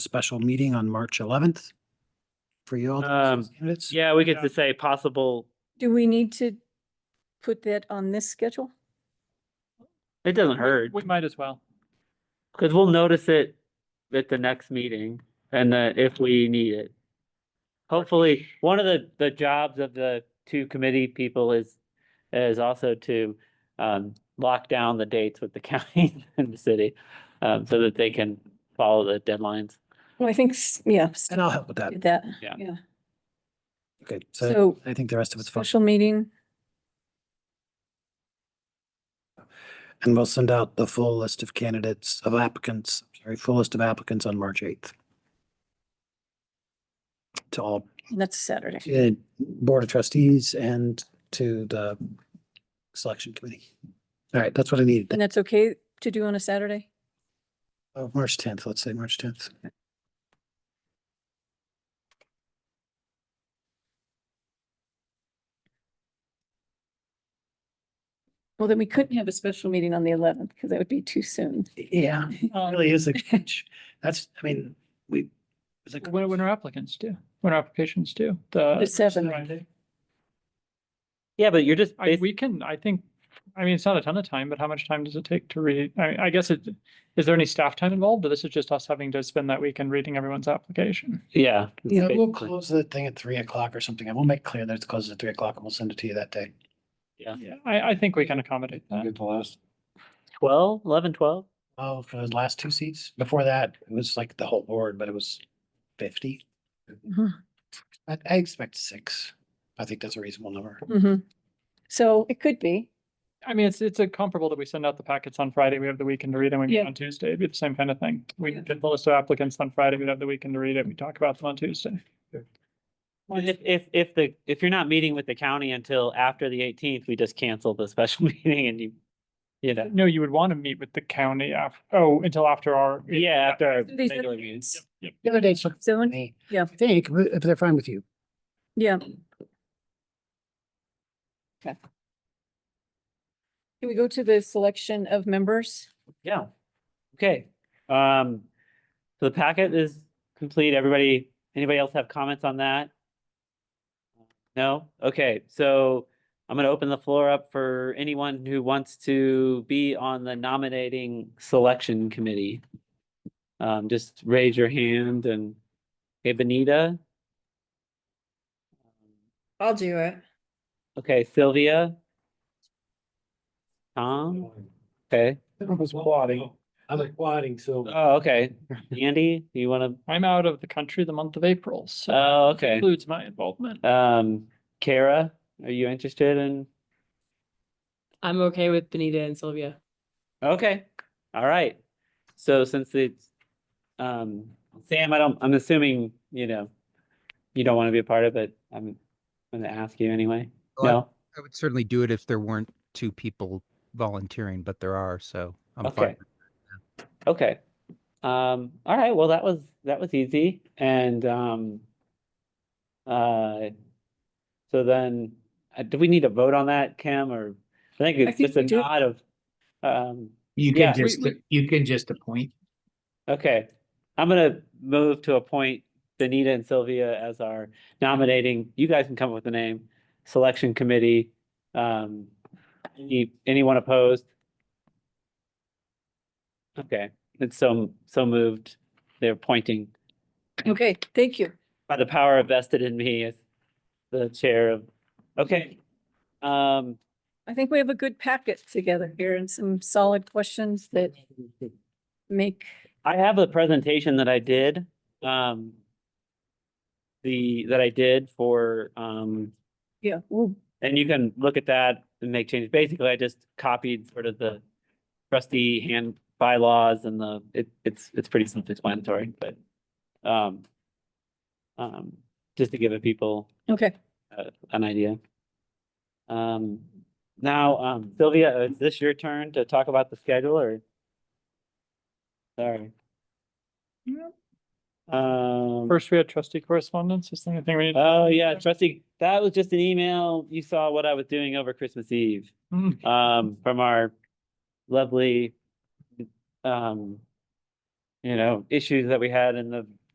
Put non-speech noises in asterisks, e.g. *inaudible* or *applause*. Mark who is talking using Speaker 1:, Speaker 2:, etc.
Speaker 1: special meeting on March eleventh for you all. to
Speaker 2: Um,
Speaker 1: discuss candidates?
Speaker 2: Yeah, we could
Speaker 1: Yeah.
Speaker 2: just say possible,
Speaker 3: Do we need to put that on this schedule?
Speaker 2: it doesn't
Speaker 4: We-
Speaker 2: hurt,
Speaker 4: We might as well.
Speaker 2: because we'll notice it at the next meeting and then if we need it. Hopefully, one of the, the jobs of the two committee people is, is also to um, lock down the dates with the *laughs* county and the city, um, so that they can follow the deadlines.
Speaker 3: Well, I think, s- yeah, s-
Speaker 1: And I'll help with that.
Speaker 3: did that.
Speaker 2: Yeah.
Speaker 3: Yeah.
Speaker 1: Okay, so
Speaker 3: So
Speaker 1: I think the rest of it's fine.
Speaker 3: special meeting,
Speaker 1: And we'll send out the full list of candidates, of applicants, sorry, full list of applicants on March eighth. To all
Speaker 3: that's Saturday.
Speaker 1: uh, Board of Trustees and to the Selection Committee. All right, that's what I needed.
Speaker 3: And that's okay to do on a Saturday?
Speaker 1: Oh, March tenth, let's say March tenth.
Speaker 3: Well, then we couldn't have a special meeting on the eleventh because that would be too soon.
Speaker 1: Yeah,
Speaker 4: Um,
Speaker 1: really *laughs* is a pinch. That's, I mean, we. it's like-
Speaker 4: When, when our applicants do, when our applications do, the.
Speaker 3: The seventh.
Speaker 4: Friday.
Speaker 2: Yeah, but you're just,
Speaker 4: I,
Speaker 2: basi-
Speaker 4: we can, I think, I mean, it's not a ton of time, but how much time does it take to read? I, I guess it, is there any staff time involved? Or this is just us having to spend that weekend reading everyone's application?
Speaker 2: yeah.
Speaker 1: Yeah, we'll
Speaker 2: basically.
Speaker 1: close the thing at three o'clock or something. I will make clear that it's closed at three o'clock and we'll send it to you that day.
Speaker 4: Yeah, I, I think we can accommodate that.
Speaker 1: the last.
Speaker 2: Twelve, eleven, twelve?
Speaker 1: Oh, for those last two seats. Before that, it was like the whole board, but it was fifty.
Speaker 3: Mhm.
Speaker 1: I, I expect six. I think that's a reasonable number.
Speaker 3: Mhm. So it could be.
Speaker 4: I mean, it's, it's a comparable that we send out the packets on Friday, we have the weekend to read, and we meet
Speaker 3: Yeah.
Speaker 4: on Tuesday, it'd be the same kind of thing. We
Speaker 3: Yeah.
Speaker 4: did the list of applicants on Friday, we'd have the weekend to read it, we talk about them on Tuesday.
Speaker 2: Well, if, if, if the, if you're not meeting with the county until after the eighteenth, we just cancel the special *laughs* meeting and you, you know,
Speaker 4: No, you would want to meet with the county af, oh, until after our.
Speaker 2: yeah, after. our
Speaker 3: These are-
Speaker 2: regular meeting.
Speaker 4: Yep, yep.
Speaker 1: The other dates look
Speaker 3: So,
Speaker 1: for me.
Speaker 3: Yeah.
Speaker 1: I think, if they're fine with you.
Speaker 3: yeah. Okay. Can we go to the selection of members?
Speaker 2: Yeah, okay. Um, so the packet is complete. Everybody, anybody else have comments on that? No? Okay, so I'm gonna open the floor up for anyone who wants to be on the nominating selection committee. Um, just raise your hand and, hey, Benita?
Speaker 5: I'll do it.
Speaker 2: Okay, Sylvia? Tom? Okay.
Speaker 1: I was plotting. I was plotting, so.
Speaker 2: Oh, okay. Andy, you wanna,
Speaker 4: I'm out of the country the month of April, so.
Speaker 2: oh, okay.
Speaker 4: Includes my involvement.
Speaker 2: Um, Kara, are you interested in?
Speaker 6: I'm okay with Benita and Sylvia.
Speaker 2: Okay, all right. So since it's, um, Sam, I don't, I'm assuming, you know, you don't want to be a part of it. I'm gonna ask you anyway.
Speaker 7: Oh, I-
Speaker 2: No?
Speaker 7: I would certainly do it if there weren't two people volunteering, but there are, so I'm fine.
Speaker 2: Okay. Okay. Um, all right, well, that was, that was easy and, um, uh, so then, uh, do we need to vote with that, Kim, or? I think it's
Speaker 3: think
Speaker 2: just a
Speaker 3: we do.
Speaker 2: nod of, um,
Speaker 8: You
Speaker 2: Yeah.
Speaker 8: can
Speaker 2: We-
Speaker 8: just, you can just appoint.
Speaker 2: Okay, I'm gonna move to appoint Benita and Sylvia as our nominating, you guys can come up with a name, selection committee. Um, any, anyone opposed? Okay, it's so, so moved, they're pointing
Speaker 3: Okay, thank you.
Speaker 2: by the power vested in me as the chair of, okay. Um,
Speaker 3: I think we have a good packet together here and some solid questions that make,
Speaker 2: I have a presentation that I did, um, the, that I did for, um,
Speaker 3: yeah, well,
Speaker 2: And you can look at that and make changes. Basically, I just copied sort of the trustee hand bylaws and the, it, it's, it's pretty self-explanatory, but, um, um, just to give it people
Speaker 3: okay.
Speaker 2: an idea. Um, now, um, Sylvia, is this your turn to talk about the schedule or? Sorry.
Speaker 4: Yep.
Speaker 2: Um.
Speaker 4: First, we had trustee correspondence, is there anything we need?
Speaker 2: Oh, yeah, trustee, that was just an email. You saw what I was doing over Christmas Eve
Speaker 4: *laughs* Hmm.
Speaker 2: um, from our lovely, um, you know, issues that we had in the